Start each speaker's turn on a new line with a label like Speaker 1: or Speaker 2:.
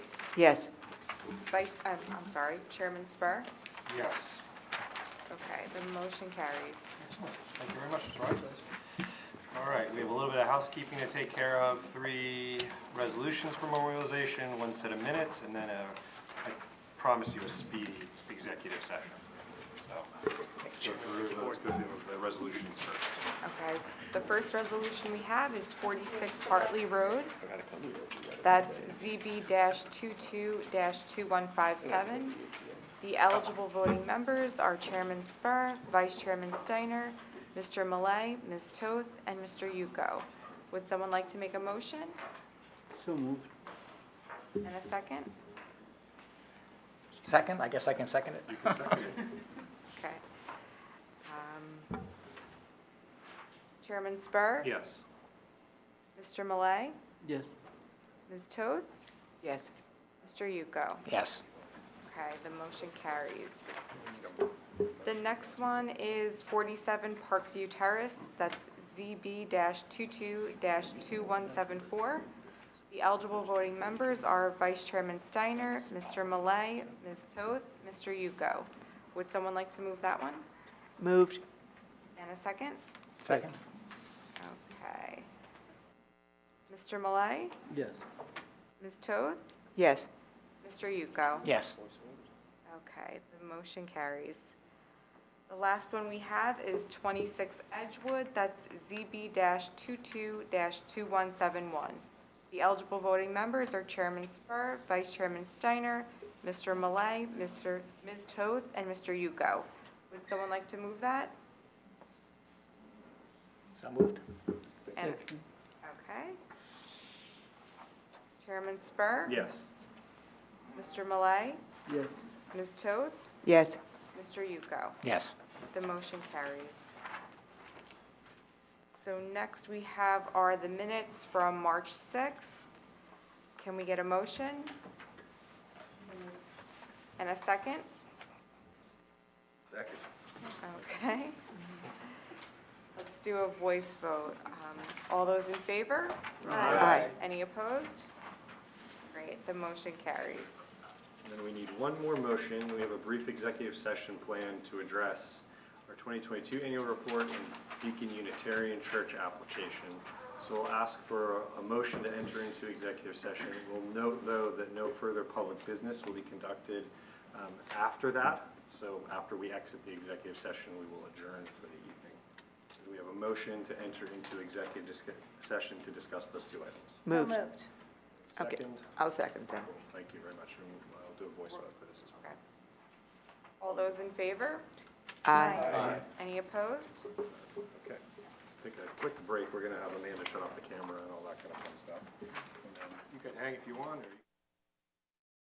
Speaker 1: Yes.
Speaker 2: Vice, um, I'm sorry, Chairman Spur?
Speaker 3: Yes.
Speaker 2: Okay, the motion carries.
Speaker 3: Excellent. Thank you very much, Mr. Rogers. All right, we have a little bit of housekeeping to take care of, three resolutions for memorialization, one set of minutes, and then a, I promise you a speedy executive session. So, let's go through, let's go through the resolutions first.
Speaker 2: Okay, the first resolution we have is forty-six Hartley Road. That's ZB two-two two-one-five-seven. The eligible voting members are Chairman Spur, Vice Chairman Steiner, Mr. Malay, Ms. Toth, and Mr. Yuko. Would someone like to make a motion
Speaker 1: So moved.
Speaker 2: and a second?
Speaker 4: Second, I guess I can second it.
Speaker 3: You can second it.
Speaker 2: Okay. Um, Chairman Spur?
Speaker 3: Yes.
Speaker 2: Mr. Malay,
Speaker 1: Yes.
Speaker 2: Ms. Toth,
Speaker 1: Yes.
Speaker 2: Mr. Yuko.
Speaker 4: Yes.
Speaker 2: Okay, the motion carries. The next one is 47 Parkview Terrace, that's ZB-22-2174. The eligible voting members are Vice Chairman Steiner, Mr. Malay, Ms. Toth, Mr. Yuko. Would someone like to move that one?
Speaker 1: Moved.
Speaker 2: And a second?
Speaker 4: Second?
Speaker 2: Okay. Mr. Malay,
Speaker 1: Yes.
Speaker 2: Ms. Toth,
Speaker 1: Yes.
Speaker 2: Mr. Yuko.
Speaker 4: Yes.
Speaker 2: Okay, the motion carries. The last one we have is 26 Edgewood, that's ZB-22-2171. The eligible voting members are Chairman Spur, Vice Chairman Steiner, Mr. Malay, Mr. Ms. Toth, and Mr. Yuko. Would someone like to move that?
Speaker 4: So moved?
Speaker 2: And- Okay. Chairman Spur?
Speaker 3: Yes.
Speaker 2: Mr. Malay,
Speaker 1: Yes.
Speaker 2: Ms. Toth,
Speaker 1: Yes.
Speaker 2: Mr. Yuko.
Speaker 4: Yes.
Speaker 2: The motion carries. So next we have are the minutes from March 6th. Can we get a motion? And a second?
Speaker 5: Second.
Speaker 2: Okay. Let's do a voice vote. Um, All those in favor?
Speaker 1: Aye.
Speaker 2: Any opposed? Great, the motion carries.
Speaker 3: And then we need one more motion. We have a brief executive session planned to address our 2022 annual report and Deacon Unitarian Church application. So we'll ask for a motion to enter into executive session. We'll note, though, that no further public business will be conducted um, after that. So after we exit the executive session, we will adjourn for the evening. So we have a motion to enter into executive disca- session to discuss those two items.
Speaker 1: Moved. Okay.
Speaker 3: Second,
Speaker 1: I'll second that.
Speaker 3: thank you very much. And I'll do a voice vote for this as well.
Speaker 2: Okay. All those in favor?
Speaker 1: Aye.
Speaker 2: Any opposed?
Speaker 3: Okay, let's take a quick break. We're gonna have Amanda shut off the camera and all that kind of fun stuff. And then You can hang if you want, or you